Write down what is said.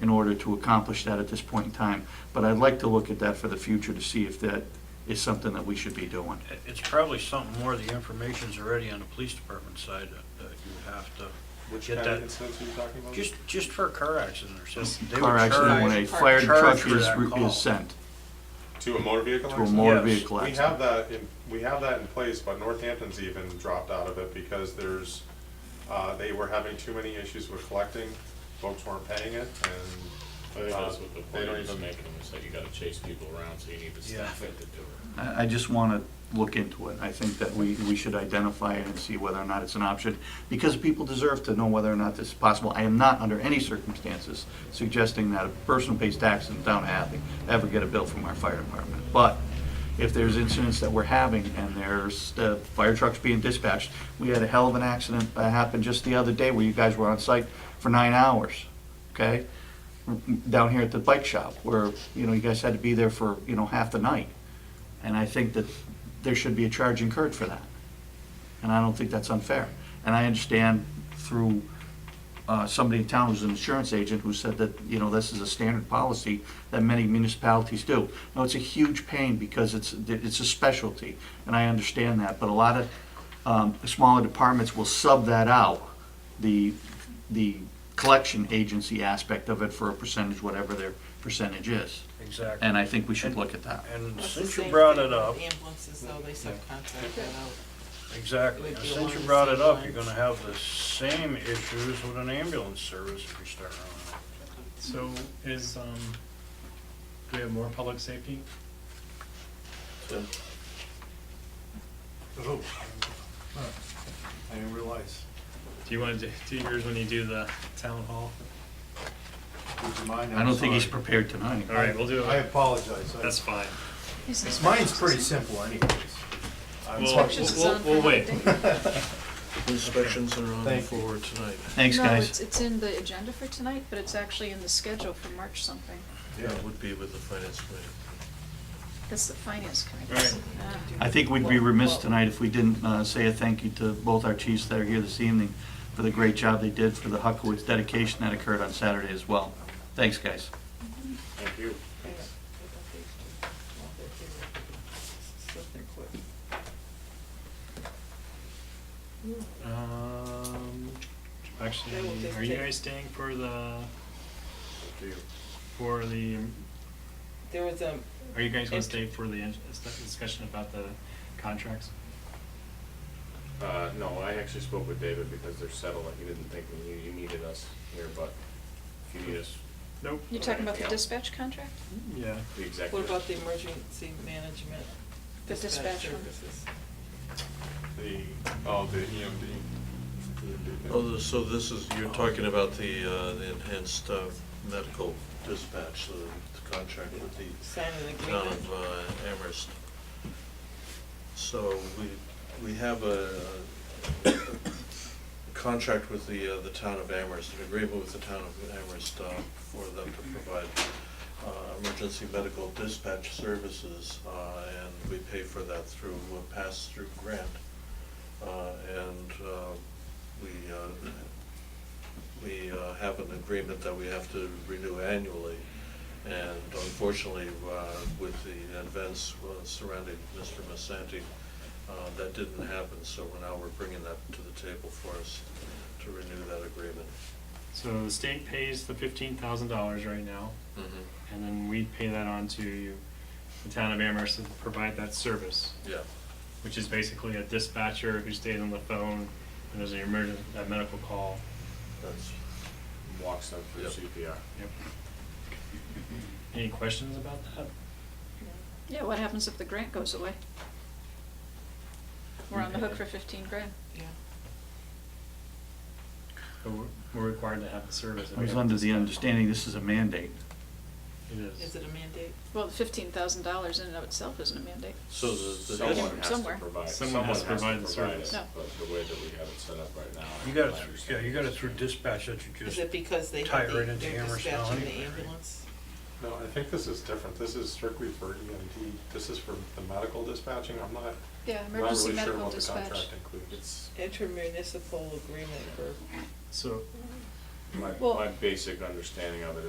in order to accomplish that at this point in time. But I'd like to look at that for the future to see if that is something that we should be doing. It- It's probably something more, the information's already on the police department side that- that you would have to, Which Get kind that. of incidents are you talking about? just, just for a car accident or something. they would Car accident, when a charge- fire charge truck for is, that call. is sent To a motor vehicle to a accident? motor Yes. vehicle We accident. have that, in we have that in place, but Northampton's even dropped out of it because there's, uh, they were having too many issues with collecting, folks weren't paying it, I think Uh, that's what the they point don't is even- making, is that you gotta chase people around, so you need to Yeah. staff it to do it. I, I just want to look into it. I think that we, we should identify it and see whether or not it's an option, because people deserve to know whether or not this is possible. I am not, under any circumstances, suggesting that a person who pays taxes in the town of Hadley ever get a bill from our fire department. But if there's incidents that we're having and there's uh, fire trucks being dispatched, we had a hell of an accident that happened just the other day where you guys were on site for nine hours, okay? Down here at the bike shop, where, you know, you guys had to be there for, you know, half the night. And I think that there should be a charge incurred for that. And I don't think that's unfair. And I understand through uh, somebody in town who's an insurance agent who said that, you know, this is a standard policy that many municipalities do. No, it's a huge pain because it's, it's a specialty, and I understand that. But a lot of um, smaller departments will sub that out, the, the collection agency aspect of it for a percentage, whatever their percentage is. Exactly. And I think we should look at that. And That's the since you same brought thing it with up, Ambulances, though, they subcontract that out. exactly, Would and be since along you the brought it same up, you're lines. gonna have the same issues with an ambulance service if you start running. So is, um, do we have more public safety? Oh, I didn't realize. Do you wanna do, do yours when you do the town hall? Losing mine, I I'm don't think he's sorry. prepared tonight. Alright, we'll do I it, apologize. I- that's fine. Mine's pretty simple anyways. I'm We'll, sorry. Inspections is we'll, on for we'll wait. Inspections are on Thank you. for tonight. Thanks, No, guys. it's, it's in the agenda for tonight, but it's actually in the schedule for March something. Yeah. That would be with the finance committee. That's the finance committee. Right. Ah. I think we'd be remiss tonight if we didn't uh, say a thank you to both our chiefs that are here this evening for the great job they did for the Huckowitz dedication that occurred on Saturday as well. Thanks, guys. mhm. Thank you. Um, They will actually, just are you take- guys staying for the, Do you? for the, There was um, a, are you guys gonna Int- stay for the ins- discussion about the contracts? Uh, no, I actually spoke with David because they're settled, like, he didn't think we- you, you needed us here, but if you need us, Nope. You're talking about the dispatch contract? the Yeah. what executive. about the emergency management? The dispatch one. services? the, oh, the EMD. Oh, the- so this is, you're talking about the, uh, the enhanced uh, medical dispatch, the the contract with the Sign an town agreement. of uh, Amherst. So we, we have a contract with the, uh, the town of Amherst, an agreement with the town of Amherst uh, for them to provide uh, emergency medical dispatch services, uh, and we pay for that through a pass-through grant. Uh, And uh, we, uh, we uh, have an agreement that we have to renew annually. And unfortunately, uh, with the events uh, surrounding Mr. Masanti, uh, that didn't happen, so we're now we're bringing that to the table for us to renew that agreement. So the state pays the fifteen thousand dollars right now. and then we pay that on to the town of Amherst to provide that service, Yeah, which is basically a dispatcher who stays on the phone when there's an emergency, that medical call. that's, Walks them through Yep. CPR. Any questions about that? Yeah, what happens if the grant goes away? We're on the hook for fifteen grand. Yeah. But We're we're required to have the service. I was under the understanding this is a mandate. It Is is. it a mandate? Well, fifteen thousand dollars in and of itself isn't a mandate. so the, the, Someone has to Somewhere. provide. Someone has to provide the provide it, service. No. But the way that we have it set up right now. You got I it, through- yeah, you got it through dispatch that you Is just, it because they, tie have it the- right into they're Amherst now dispatching anyway, the right? ambulance? No, I think this is different. This is strictly for EMD. This is for the medical dispatching. I'm not, Yeah, not emergency really sure medical what the dispatch. contract includes. Intermunicipal agreement for So My, Well- my basic understanding of it